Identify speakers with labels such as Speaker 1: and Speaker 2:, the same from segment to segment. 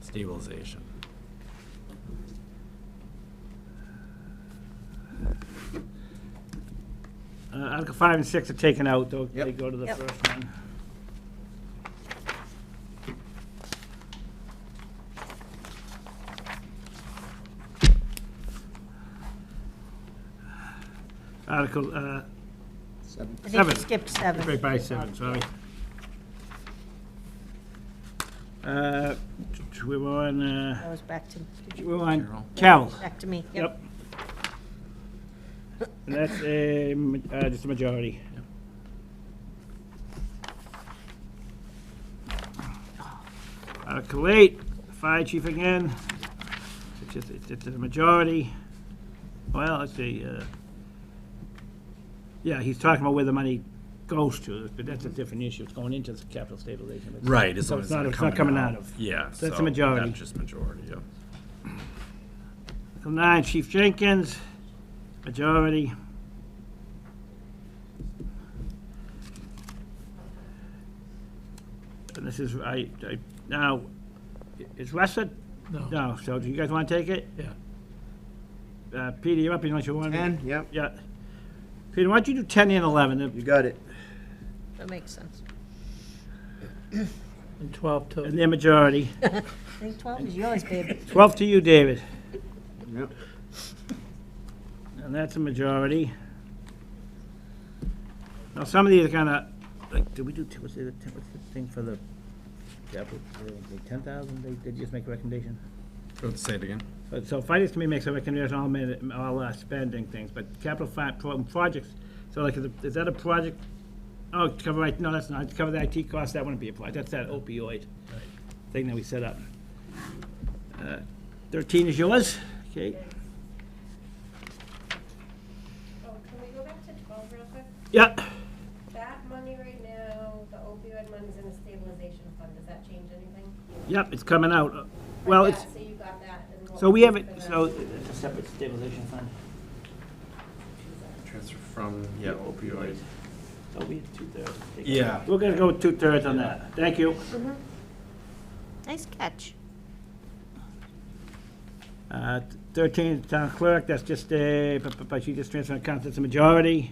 Speaker 1: stabilization.
Speaker 2: Uh, Article five and six are taken out, though, they
Speaker 3: Yep.
Speaker 2: go to the
Speaker 4: Yep.
Speaker 2: first one. Article, uh,
Speaker 3: Seven.
Speaker 4: I think
Speaker 2: Seven.
Speaker 4: you skipped seven.
Speaker 2: right by seven, sorry. Uh, t- t- we were on,
Speaker 4: That
Speaker 2: uh,
Speaker 4: was back to,
Speaker 2: we were on
Speaker 1: Carol.
Speaker 2: Cal.
Speaker 4: back to me.
Speaker 2: Yep. And that's a, ma- uh, just a majority. Article eight, Uh, fire chief again. It's just, it's just a majority. Well, let's see, uh, yeah, he's talking about where the money goes to, but that's a different issue. It's going into the capital stabilization. It's-
Speaker 1: Right, as
Speaker 2: So
Speaker 1: long
Speaker 2: it's
Speaker 1: as
Speaker 2: not-
Speaker 1: it's
Speaker 2: it's not coming out of.
Speaker 1: Yeah.
Speaker 2: So that's a
Speaker 1: so
Speaker 2: majority.
Speaker 1: That's just majority, yeah.
Speaker 2: Article nine, Chief Jenkins, majority. And this is, I, I, now, i- is Russell?
Speaker 5: No.
Speaker 2: No, so do you guys want to take it?
Speaker 5: Yeah.
Speaker 2: Uh, Peter, you're up, unless you want. to-
Speaker 3: Ten, yep,
Speaker 2: Yeah. Peter, why don't you do ten and eleven?
Speaker 3: you
Speaker 2: And
Speaker 3: got it.
Speaker 4: That makes sense.
Speaker 5: And 12 to,
Speaker 2: their majority.
Speaker 4: I think twelve is yours, babe.
Speaker 2: Twelve to you, David.
Speaker 3: Yep.
Speaker 2: And that's a majority. Now, some of these are kind of, like, did we do, what's the, what's the thing for the, ten thousand, they, they just make a recommendation?
Speaker 1: Go ahead, Say it again.
Speaker 2: But, so finance committee makes a recommendation on all, min- all uh, spending things, but capital fi, pro- projects, so like, is it- is that a project? Oh, to cover, IT no, that's not, to cover the IT costs, that wouldn't be applied, that's that opioid thing that we set up. Uh, Thirteen is yours, okay?
Speaker 6: Oh, can we go back to twelve real quick?
Speaker 2: Yeah,
Speaker 6: That money right now, the opioid money's in a stabilization fund, does that change anything?
Speaker 2: yep, it's coming out. Well,
Speaker 6: Like
Speaker 2: it's.
Speaker 6: that, So you got that and what
Speaker 2: So we have it,
Speaker 6: for the-
Speaker 2: so it's a separate stabilization fund.
Speaker 1: Transfer from, yeah, opioid.
Speaker 2: So we have two-thirds.
Speaker 1: Yeah.
Speaker 2: We're gonna go with two-thirds on that. Thank you.
Speaker 4: Nice catch.
Speaker 2: Uh, Thirteen, town clerk, that's just uh, a, but- but but she just transferred accounts, that's a majority.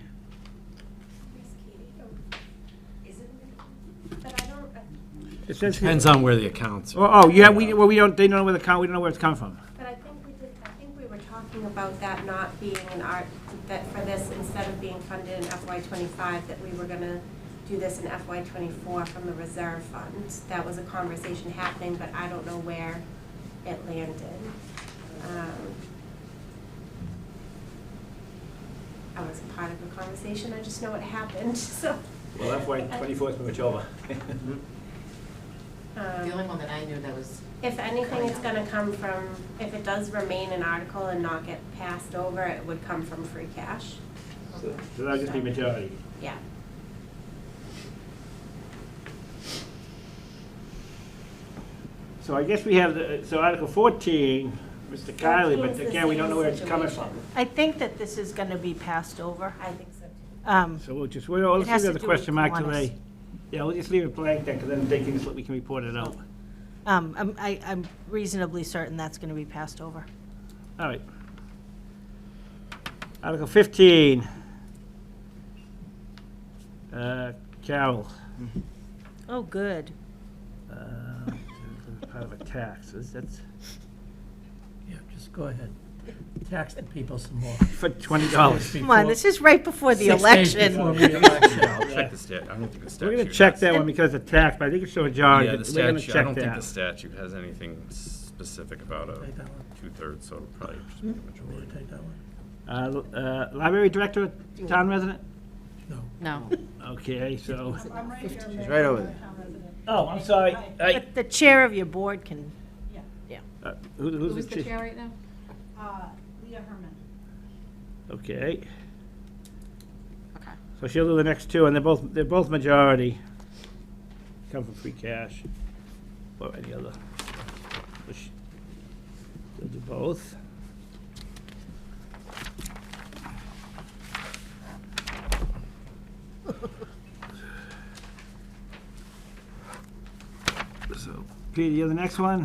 Speaker 6: Miss Katie, oh, Isn't it? But I don't, I-
Speaker 2: It says here-
Speaker 1: Depends on where the accounts
Speaker 2: Oh,
Speaker 1: are.
Speaker 2: oh, yeah, we, well, we don't, they don't know where the count, we don't know where it's coming from.
Speaker 6: but I think we did, I think we were talking about that not being an art, that for this, instead of being funded in FY twenty-five, that we were gonna do this in FY twenty-four from the reserve fund. That was a conversation happening, but I don't know where it landed. Um, I was part of the conversation, I just know it happened, so.
Speaker 2: Well, FY twenty-four is much over. Mm-hmm.
Speaker 6: um,
Speaker 7: The only one that I knew that was
Speaker 6: If anything, it's gonna come from, if it does remain an article and not get passed over, it would come from free cash,
Speaker 2: So that'll just be majority.
Speaker 6: yeah.
Speaker 2: So I guess we have, the so Article fourteen, Mr. Kylie, but
Speaker 6: 14 is the
Speaker 2: again, we don't
Speaker 6: same
Speaker 2: know where it's coming from.
Speaker 6: situation.
Speaker 4: I think that this is gonna be passed over.
Speaker 6: I think so too.
Speaker 4: Um,
Speaker 2: So we'll just, we'll,
Speaker 4: It
Speaker 2: let's
Speaker 4: has
Speaker 2: leave
Speaker 4: to
Speaker 2: the
Speaker 4: do with
Speaker 2: question mark
Speaker 4: Kiwanis.
Speaker 2: today. Yeah, we'll just leave it blank then, because then they can just, we can report it out.
Speaker 4: um, I'm, I, I'm reasonably certain that's gonna be passed over.
Speaker 2: All right. Article fifteen. Uh, Carol,
Speaker 4: Oh, good.
Speaker 2: uh, part of a tax, is that
Speaker 5: yeah, just go ahead. Tax the people some more.
Speaker 2: for twenty dollars?
Speaker 4: Come on, this is right before the election.
Speaker 1: Yeah, I'll check the stat, I don't think the statute.
Speaker 2: We're gonna check
Speaker 1: has-
Speaker 2: that one because it's a tax, but I think it's so jarred,
Speaker 1: Yeah, the
Speaker 2: that we're gonna
Speaker 1: statute, I
Speaker 2: check
Speaker 1: don't think the
Speaker 2: that.
Speaker 1: statute has anything specific about a
Speaker 5: Take that one.
Speaker 1: two-thirds, so it'll probably just be a
Speaker 5: Will you
Speaker 1: majority.
Speaker 5: take that one?
Speaker 2: Uh, l- uh, library director, town resident?
Speaker 5: No.
Speaker 7: no.
Speaker 2: Okay, so,
Speaker 3: She's right over there.
Speaker 2: oh, I'm sorry, I,
Speaker 4: But the chair of your board can,
Speaker 2: uh, who- who's the
Speaker 7: Who's the
Speaker 2: chief?
Speaker 7: chair right now? Uh,
Speaker 8: Leah Herman.
Speaker 2: Okay,
Speaker 7: Okay.
Speaker 2: so she'll do the next two, and they're both, they're both majority. Come from free cash or any other. So she- She'll do both. So, Peter, you're the next one?